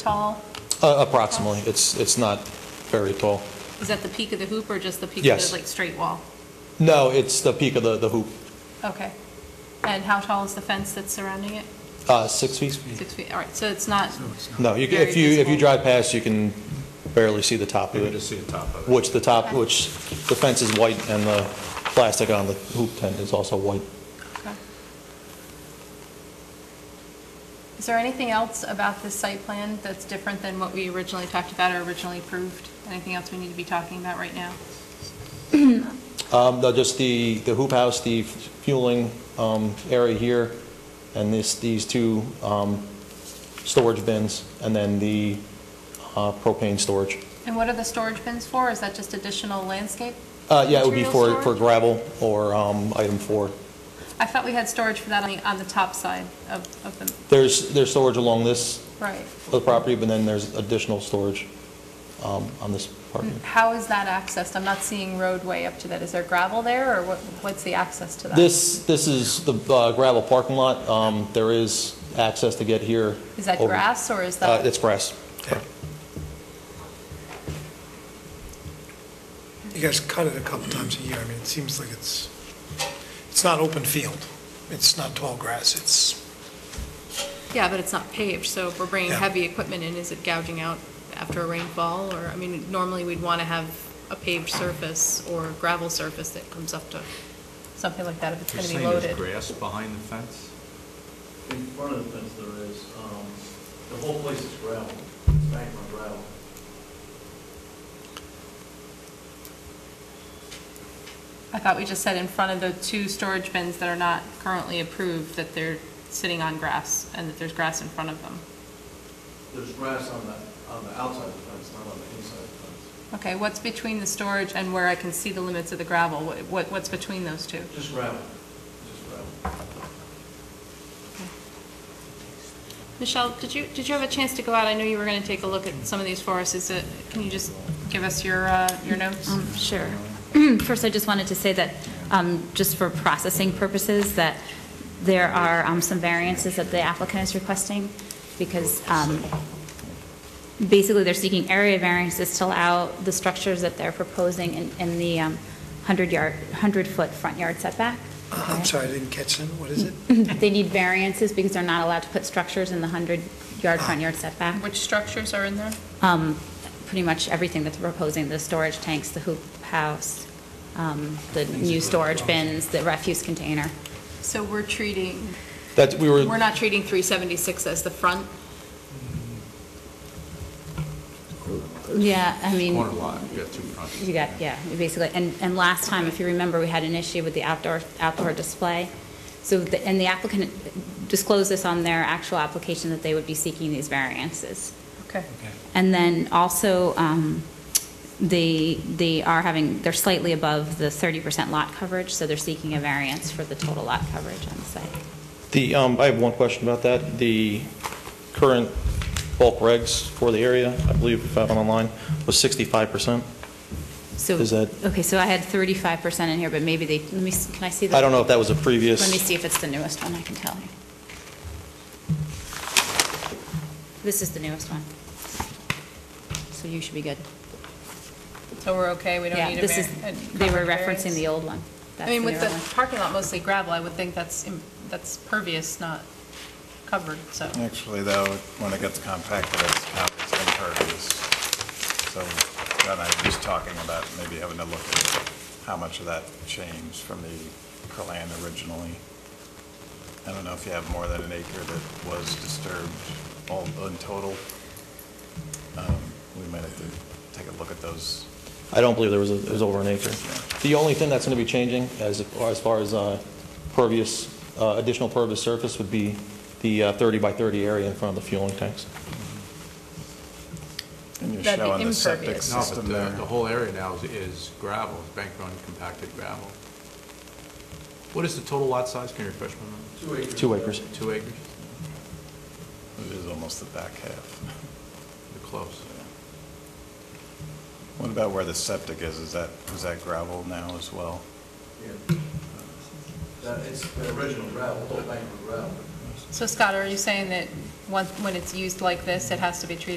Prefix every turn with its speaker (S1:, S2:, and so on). S1: tall?
S2: Uh, Approximately, it's, it's not very tall.
S1: Is that the peak of the hoop or just the peak of
S2: Yes.
S1: the, like, straight wall?
S2: No, it's the peak of the, the hoop,
S1: Okay. And how tall is the fence that's surrounding it?
S2: Uh, six feet?
S1: Six feet, all right, so it's not,
S2: No, you, ca-
S1: Very
S2: if you, if you
S1: visible.
S2: drive past, you can barely see the top of
S3: You
S2: it,
S3: just see the top of it.
S2: which the top,
S1: Okay.
S2: which the fence is white and the plastic on the hoop tent is also white.
S1: okay. Is there anything else about this site plan that's different than what we originally talked about or originally approved? Anything else we need to be talking about right now?
S2: Um, no, just the, the hoop house, the fueling, um, area here, and this, these two, um, storage bins, and then the, uh, propane storage.
S1: And what are the storage bins for? Is that just additional landscape?
S2: Uh, yeah, it would be
S1: Material
S2: for, for
S1: storage?
S2: gravel or, um, item four.
S1: I thought we had storage for that on the, on the top side of, of the,
S2: There's, there's storage along this
S1: right.
S2: of the property, but then there's additional storage, um, on this part. here.
S1: How is that accessed? I'm not seeing roadway up to that. Is there gravel there, or what, what's the access to that? Is
S2: This, this is the uh, gravel parking lot. Um, there is access to get here.
S1: that
S2: over-
S1: grass, or is
S2: Uh,
S1: that?
S2: it's grass.
S4: You guys cut it a couple times a year. I mean, it seems like it's, it's not open field. It's not tall grass. It's,
S1: Yeah, but it's not paved, so if we're bringing
S4: Yeah.
S1: heavy equipment in, is it gouging out after a rainfall? Or, I mean, normally we'd want to have a paved surface or gravel surface that comes up to something like that if it's
S3: You're
S1: going to be
S3: saying
S1: loaded.
S3: there's grass behind the fence?
S5: In front of the fence there is, um, the whole place is gravel, it's banked on gravel.
S1: I thought we just said in front of the two storage bins that are not currently approved, that they're sitting on grass and that there's grass in front of them.
S5: There's grass on the, on the outside of the fence, not on the inside of the fence.
S1: Okay, what's between the storage and where I can see the limits of the gravel? What- What, what's between those two?
S5: Just gravel, just gravel.
S1: Michelle, did you, did you have a chance to go out? I know you were going to take a look at some of these for us. Is it, can you just give us your, uh, your notes?
S6: Um, Sure. First, I just wanted to say that, um, just for processing purposes, that there are um, some variances that the applicant is requesting, because um, basically, they're seeking area variances to allow the structures that they're proposing in- in the um, 100-yard, 100-foot front yard setback.
S4: Uh, I'm sorry, I didn't catch that. What is it?
S6: They need variances because they're not allowed to put structures in the 100-yard front yard setback.
S1: Which structures are in there?
S6: Um, Pretty much everything that they're proposing, the storage tanks, the hoop house, um, the new storage bins, the refuse container.
S1: So we're treating,
S2: That, we were,
S1: we're not treating 376 as the front?
S6: Yeah, I mean,
S3: Corner lot, you got two fronts.
S6: you got, yeah, basically, and, and last time, if you remember, we had an issue with the outdoor, outdoor display. So, the- and the applicant disclosed this on their actual application that they would be seeking these variances.
S1: Okay.
S6: And then also, um, they, they are having, they're slightly above the 30% lot coverage, so they're seeking a variance for the total lot coverage on the site.
S2: the, um, I have one question about that. The current bulk regs for the area, I believe, if I have it online, was 65%.
S6: So,
S2: Is that-
S6: okay, so I had 35% in here, but maybe they, let me, s- can I see the?
S2: I don't know if that was a
S6: Let me
S2: previous,
S6: see if it's the newest one, I can tell you. This is the newest one. So you should be good.
S1: So we're okay, we don't
S6: Yeah,
S1: need a
S6: this is,
S1: var- a
S6: they were
S1: coverage
S6: referencing
S1: variance?
S6: the old one.
S1: I
S6: That's
S1: mean,
S6: the
S1: with
S6: newer
S1: the
S6: one.
S1: parking lot mostly gravel, I would think that's, im- that's pervious, not covered, so.
S7: Actually, though, when it gets compacted, it's compacted in pervious. So John and I were just talking about maybe having to look at how much of that changed from the plan originally. I don't know if you have more than an acre that was disturbed all in total. Um, We might have to take a look at those.
S2: I don't believe there was, a- it was over an acre. The only thing that's going to be changing as, as far as uh, pervious, uh, additional pervious surface would be the uh, 30 by 30 area in front of the fueling tanks.
S7: And you're
S1: That'd be
S7: showing the septic
S1: impervious.
S3: No, but
S7: system
S3: the,
S7: there.
S3: the whole area now is- is gravel, it's bank run compacted gravel. What is the total lot size, can you refresh my memory?
S5: Two acres.
S2: Two acres.
S3: Two acres?
S7: It is almost the back half.
S3: You're close.
S7: What about where the septic is? Is that, is that gravel now as well?
S5: Yeah. That, it's the original gravel, the whole bank of gravel.
S1: So Scott, are you saying that once, when it's used like this, it has to be treated